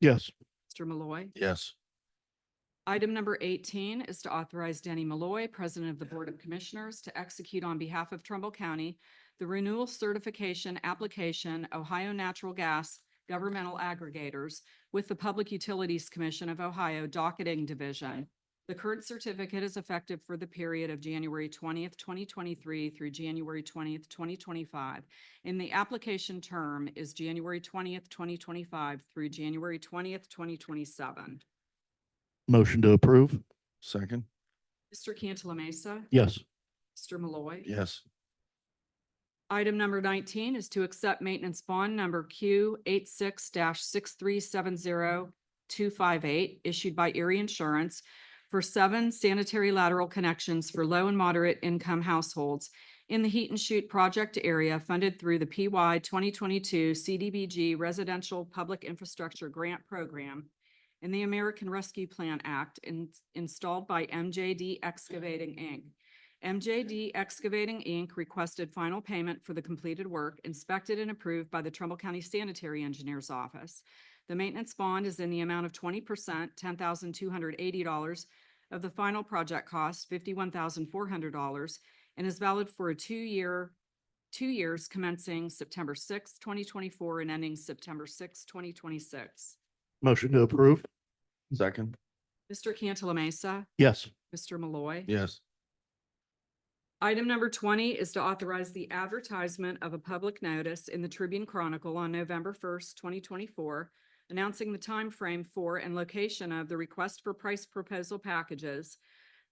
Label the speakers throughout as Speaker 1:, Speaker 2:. Speaker 1: Yes.
Speaker 2: Mr. Malloy.
Speaker 1: Yes.
Speaker 2: Item number eighteen is to authorize Danny Malloy, President of the Board of Commissioners, to execute on behalf of Trumbull County the renewal certification application Ohio Natural Gas Governmental Aggregators with the Public Utilities Commission of Ohio Docketing Division. The current certificate is effective for the period of January twentieth, twenty twenty-three through January twentieth, twenty twenty-five. And the application term is January twentieth, twenty twenty-five through January twentieth, twenty twenty-seven.
Speaker 1: Motion to approve. Second.
Speaker 2: Mr. Cantala Mesa.
Speaker 1: Yes.
Speaker 2: Mr. Malloy.
Speaker 1: Yes.
Speaker 2: Item number nineteen is to accept maintenance bond number Q 86 six three seven zero two five eight issued by Erie Insurance for seven sanitary lateral connections for low and moderate income households in the Heat and Shoot project area funded through the PY twenty twenty-two CDBG Residential Public Infrastructure Grant Program and the American Rescue Plan Act in- installed by MJD Excavating, Inc. MJD Excavating, Inc. requested final payment for the completed work inspected and approved by the Trumbull County Sanitary Engineer's Office. The maintenance bond is in the amount of twenty percent, ten thousand two hundred eighty dollars of the final project cost, fifty-one thousand four hundred dollars, and is valid for a two-year, two years commencing September sixth, twenty twenty-four and ending September sixth, twenty twenty-six.
Speaker 1: Motion to approve. Second.
Speaker 2: Mr. Cantala Mesa,
Speaker 1: Yes.
Speaker 2: Mr. Malloy.
Speaker 1: Yes.
Speaker 2: Item number twenty is to authorize the advertisement of a public notice in the Tribune Chronicle on November first, twenty twenty-four, announcing the time frame for and location of the request for price proposal packages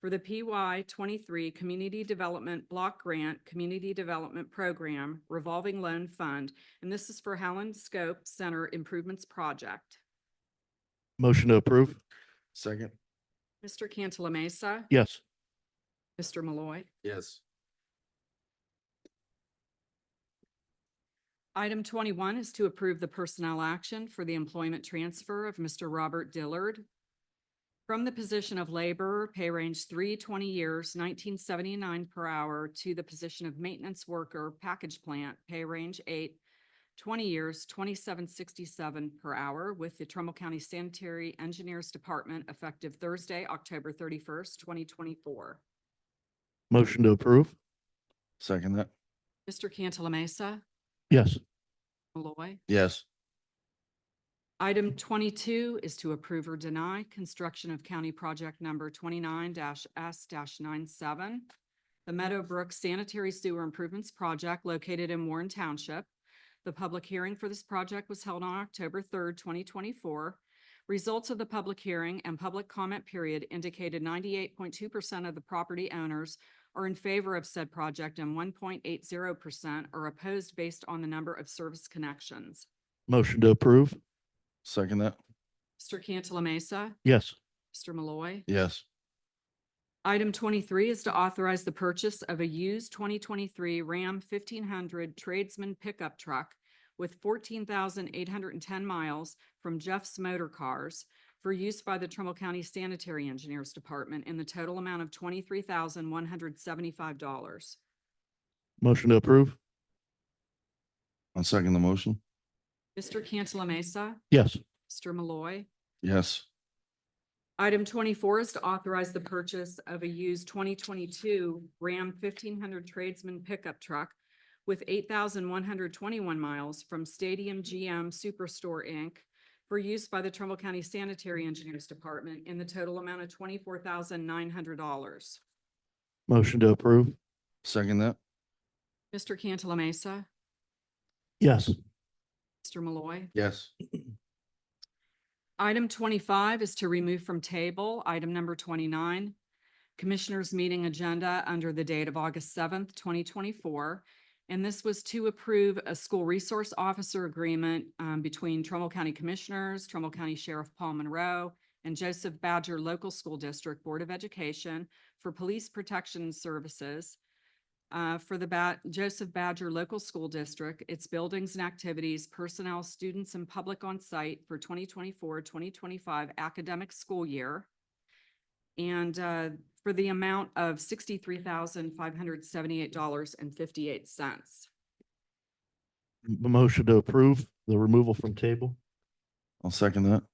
Speaker 2: for the PY twenty-three Community Development Block Grant Community Development Program Revolving Loan Fund, and this is for Howland Scope Center Improvements Project.
Speaker 1: Motion to approve. Second.
Speaker 2: Mr. Cantala Mesa,
Speaker 1: Yes.
Speaker 2: Mr. Malloy.
Speaker 1: Yes.
Speaker 2: Item twenty-one is to approve the personnel action for the employment transfer of Mr. Robert Dillard from the position of laborer, pay range three, twenty years, nineteen seventy-nine per hour, to the position of maintenance worker, package plant, pay range eight, twenty years, twenty-seven sixty-seven per hour, with the Trumbull County Sanitary Engineers Department effective Thursday, October thirty-first, twenty twenty-four.
Speaker 1: Motion to approve. Second that.
Speaker 2: Mr. Cantala Mesa,
Speaker 1: Yes.
Speaker 2: Malloy.
Speaker 1: Yes.
Speaker 2: Item twenty-two is to approve or deny construction of county project number twenty-nine S 97 The Meadow Brook Sanitary Sewer Improvements Project located in Warren Township. The public hearing for this project was held on October third, twenty twenty-four. Results of the public hearing and public comment period indicated ninety-eight point two percent of the property owners are in favor of said project and one point eight zero percent are opposed based on the number of service connections.
Speaker 1: Motion to approve. Second that.
Speaker 2: Mr. Cantala Mesa.
Speaker 1: Yes.
Speaker 2: Mr. Malloy.
Speaker 1: Yes.
Speaker 2: Item twenty-three is to authorize the purchase of a used twenty twenty-three Ram fifteen hundred tradesman pickup truck with fourteen thousand eight hundred and ten miles from Jeff's Motor Cars for use by the Trumbull County Sanitary Engineers Department in the total amount of twenty-three thousand one hundred seventy-five dollars.
Speaker 1: Motion to approve. I'll second the motion.
Speaker 2: Mr. Cantala Mesa,
Speaker 1: Yes.
Speaker 2: Mr. Malloy.
Speaker 1: Yes.
Speaker 2: Item twenty-four is to authorize the purchase of a used twenty twenty-two Ram fifteen hundred tradesman pickup truck with eight thousand one hundred twenty-one miles from Stadium GM Superstore Inc. for use by the Trumbull County Sanitary Engineers Department in the total amount of twenty-four thousand nine hundred dollars.
Speaker 1: Motion to approve. Second that.
Speaker 2: Mr. Cantala Mesa,
Speaker 1: Yes.
Speaker 2: Mr. Malloy.
Speaker 1: Yes.
Speaker 2: Item twenty-five is to remove from table item number twenty-nine, Commissioners' Meeting Agenda under the date of August seventh, twenty twenty-four. And this was to approve a school resource officer agreement um, between Trumbull County Commissioners, Trumbull County Sheriff Paul Monroe, and Joseph Badger Local School District Board of Education for Police Protection Services uh, for the Ba- Joseph Badger Local School District, its buildings and activities, personnel, students, and public on site for 2024-2025 academic school year. And uh, for the amount of sixty-three thousand, five hundred seventy-eight dollars and fifty-eight cents.
Speaker 1: Motion to approve the removal from table. I'll second that.